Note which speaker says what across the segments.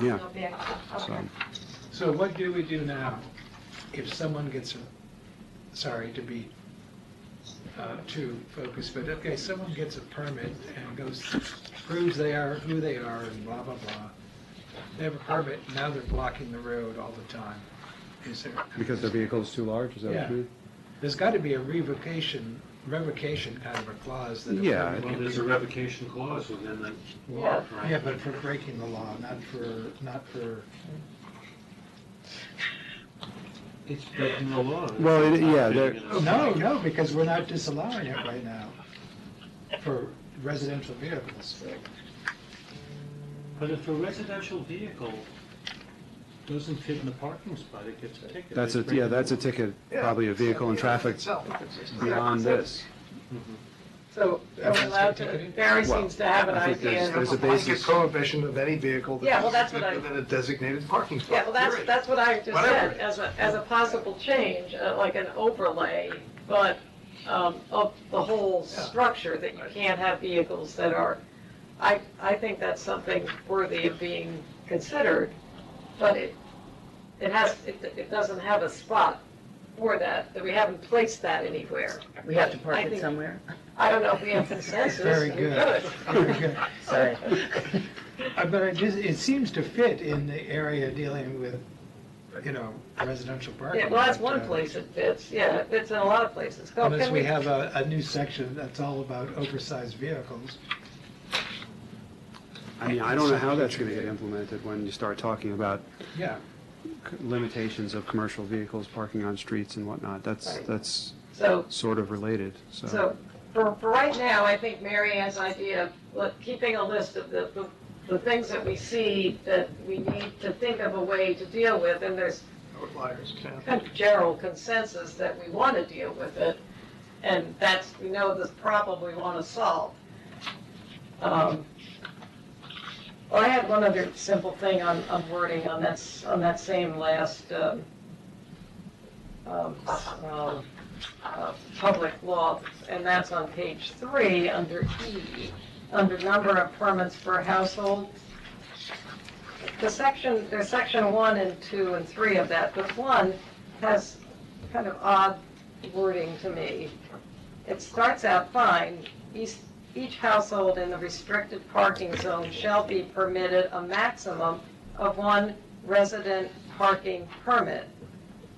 Speaker 1: Yeah.
Speaker 2: Yeah,
Speaker 1: So,
Speaker 2: okay.
Speaker 3: So what do we do now if someone gets, a- sorry to be uh, too focused, but okay, someone gets a permit and goes, proves they are who they are and blah, blah, blah. They have a permit, now they're blocking the road all the time. Is there?
Speaker 1: because the vehicle's too large, is that what
Speaker 3: Yeah.
Speaker 1: you mean?
Speaker 3: There's got to be a revocation, revocation kind of a clause that. a
Speaker 1: Yeah,
Speaker 3: permit
Speaker 1: I
Speaker 4: Well,
Speaker 3: can
Speaker 4: there's
Speaker 3: be-
Speaker 4: a revocation clause within the law,
Speaker 2: Yeah.
Speaker 4: right?
Speaker 3: Yeah, but for breaking the law, not for, not for,
Speaker 4: It's breaking the law.
Speaker 1: Well, it- yeah, there-
Speaker 2: Oh,
Speaker 3: no, no, because we're not disallowing it right now for residential vehicles.
Speaker 4: But if a residential vehicle doesn't fit in the parking spot, it gets a ticket.
Speaker 1: That's a,
Speaker 4: It's
Speaker 1: yeah,
Speaker 4: breaking
Speaker 1: that's a
Speaker 4: the
Speaker 1: ticket, probably a vehicle and traffic beyond this.
Speaker 5: So are we allowed to, Barry seems to have an
Speaker 1: I think
Speaker 5: idea.
Speaker 1: there's a
Speaker 6: blanket
Speaker 1: basis.
Speaker 6: prohibition of any vehicle. that-
Speaker 5: Yeah, well, that's what I-
Speaker 6: Within a designated parking spot.
Speaker 5: Yeah, well, that's,
Speaker 6: period.
Speaker 5: that's what I just
Speaker 6: Whatever.
Speaker 5: said, as a, as a possible change, uh, like an overlay, but um, of the whole structure, that you can't have vehicles that are, I, I think that's something worthy of being considered, but it, it has, it, it doesn't have a spot for that, that we haven't placed that anywhere.
Speaker 7: We have to park
Speaker 5: I
Speaker 7: it
Speaker 5: think-
Speaker 7: somewhere?
Speaker 5: I don't know if we have consensus.
Speaker 3: Very
Speaker 5: We
Speaker 3: good.
Speaker 5: could.
Speaker 3: Very good.
Speaker 7: Sorry.
Speaker 3: Uh, But it just, it seems to fit in the area dealing with, you know, residential parking.
Speaker 5: Yeah, well, that's one
Speaker 3: but, uh,
Speaker 5: place it fits, yeah, it fits in a lot of places. Go,
Speaker 3: Unless
Speaker 5: can
Speaker 3: we have a, a new section that's all about oversized vehicles.
Speaker 1: I mean, I don't know how that's gonna get implemented when you start talking about
Speaker 3: Yeah,
Speaker 1: c- limitations of commercial vehicles parking on streets and whatnot. That's,
Speaker 5: Right.
Speaker 1: that's
Speaker 5: So,
Speaker 1: sort of related, so.
Speaker 5: so, for, for right now, I think Mary has idea of, look, keeping a list of the, the, the things that we see that we need to think of a way to deal with, and there's
Speaker 6: Outliers, yeah.
Speaker 5: kind of general consensus that we want to deal with it, and that's, we know the problem we want to solve. Um, Well, I had one other simple thing on, on wording on that, s- on that same last, um, um, s- um, uh, public law, and that's on page three, under E, under number of permits per household. The section, there's section one and two and three of that, but one has kind of odd wording to me. It starts out fine, each, each household in the restricted parking zone shall be permitted a maximum of one resident parking permit.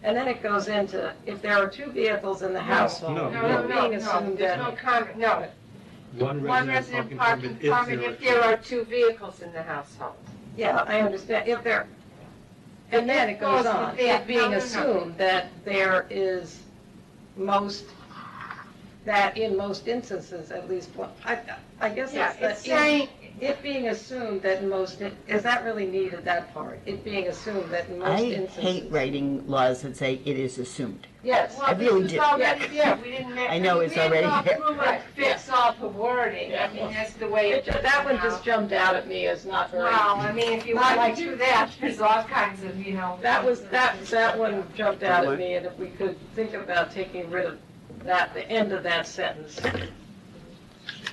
Speaker 5: And then it goes into, if there are two vehicles in the household,
Speaker 4: No,
Speaker 2: No, no,
Speaker 5: it
Speaker 2: no,
Speaker 5: being
Speaker 2: no,
Speaker 5: assumed that.
Speaker 2: there's no comment, no.
Speaker 4: One
Speaker 2: One resident
Speaker 4: resident
Speaker 2: parking
Speaker 4: parking
Speaker 2: permit if there are two vehicles in the household. Uh,
Speaker 5: Yeah, I understand, if there, and then it goes on, it being assumed that there is most, that in most instances, at least, one- I, I guess
Speaker 2: Yeah,
Speaker 5: that's the.
Speaker 2: it's saying,
Speaker 5: It being assumed that in most, in- is that really needed, that part? It being assumed that in most
Speaker 7: I
Speaker 5: instances.
Speaker 7: hate writing laws that say it is assumed.
Speaker 5: Yes,
Speaker 2: well, this
Speaker 7: really
Speaker 2: was
Speaker 7: did.
Speaker 2: already there, we didn't make.
Speaker 7: I know it's already
Speaker 2: We
Speaker 7: there.
Speaker 2: didn't go through and fix all the wording, I mean, that's the way
Speaker 5: It
Speaker 2: it.
Speaker 5: ju- that one just jumped out at me as not very.
Speaker 2: Well, I mean, if you
Speaker 5: Not
Speaker 2: want
Speaker 5: like-
Speaker 2: to do that, there's all kinds of, you know.
Speaker 5: That was, that, that one jumped out at me, and if we could think about taking rid of that, the end of that sentence.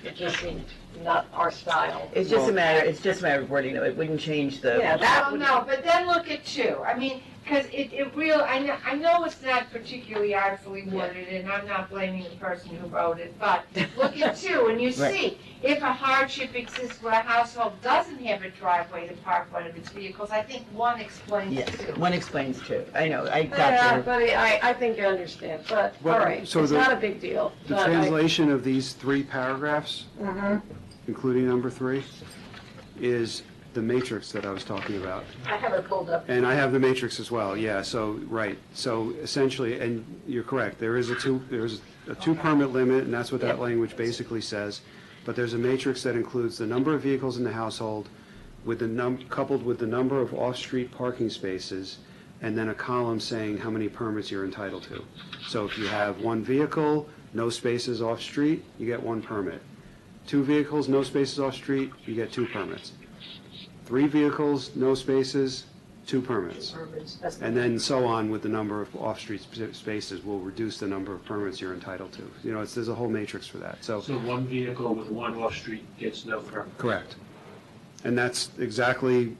Speaker 5: It just seemed not our style.
Speaker 7: It's just a matter, it's just a matter of wording, though. It wouldn't change the.
Speaker 5: Yeah, that
Speaker 2: Well,
Speaker 5: would,
Speaker 2: no, but then look at two, I mean, because it, it real, I know, I know it's not particularly artfully worded, and I'm not blaming the person who wrote it, but look at two, and you
Speaker 7: Right.
Speaker 2: see, if a hardship exists where a household doesn't have a driveway to park one of its vehicles, I think one explains
Speaker 7: Yes,
Speaker 2: two.
Speaker 7: one explains two. I know, I got
Speaker 5: yeah,
Speaker 7: your
Speaker 5: but I, I think I understand, but, all
Speaker 1: Well,
Speaker 5: right, it's
Speaker 1: so the-
Speaker 5: not a big deal.
Speaker 1: The
Speaker 5: but I-
Speaker 1: translation of these three paragraphs,
Speaker 5: Mhm.
Speaker 1: including number three, is the matrix that I was talking about.
Speaker 5: I have it pulled up.
Speaker 1: And I have the matrix as well, yeah, so, right, so essentially, and you're correct, there is a two, there's a two permit limit, and that's what that language basically says, but there's a matrix that includes the number of vehicles in the household with the num, coupled with the number of off-street parking spaces, and then a column saying how many permits you're entitled to. So if you have one vehicle, no spaces off-street, you get one permit. Two vehicles, no spaces off-street, you get two permits. Three vehicles, no spaces, two permits. And then so on with the number of off-street sp- spaces will reduce the number of permits you're entitled to. You know, it's, there's a whole matrix for that, so.
Speaker 4: So one vehicle with one off-street gets no permit.
Speaker 1: Correct. And that's exactly